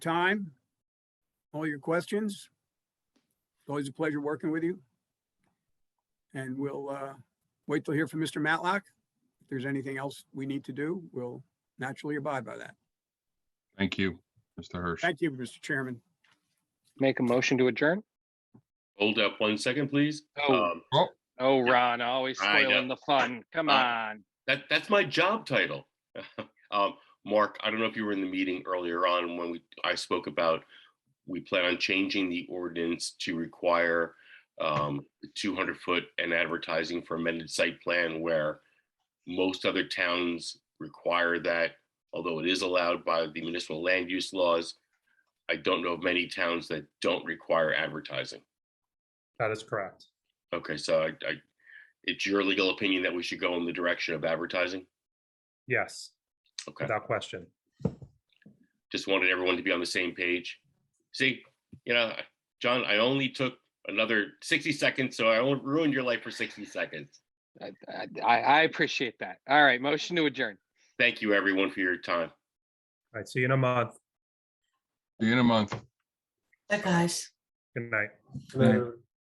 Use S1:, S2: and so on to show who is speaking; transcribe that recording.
S1: time, all your questions. It's Always a pleasure working with you. And we'll uh, wait till hear from Mr. Matlock. If there's anything else we need to do, we'll naturally abide by that.
S2: Thank you, Mr. Hirsch.
S1: Thank you, Mr. Chairman.
S3: Make a motion to adjourn?
S4: Hold up one second, please.
S3: Oh.
S4: Um,
S3: Oh, Ron, always
S4: I know.
S3: spoiling the fun. Come
S4: Uh,
S3: on.
S4: That, that's my job title. Um, Mark, I don't know if you were in the meeting earlier on when we, I spoke about, we plan on changing the ordinance to require um, 200 foot and advertising for amended site plan where most other towns require that, although it is allowed by the municipal land use laws. I don't know of many towns that don't require advertising.
S5: That is correct.
S4: Okay, so I, I, it's your legal opinion that we should go in the direction of advertising?
S5: Yes,
S4: Okay,
S5: without question.
S4: just wanted everyone to be on the same page. See, you know, I- John, I only took another sixty seconds, so I only ruined your life for sixty seconds.
S3: I, I, I appreciate that. All right, motion to adjourn.
S4: Thank you, everyone, for your time.
S5: All right, see you in a month.
S2: See you in a month.
S6: Bye, guys.
S5: Good night.
S2: Good night.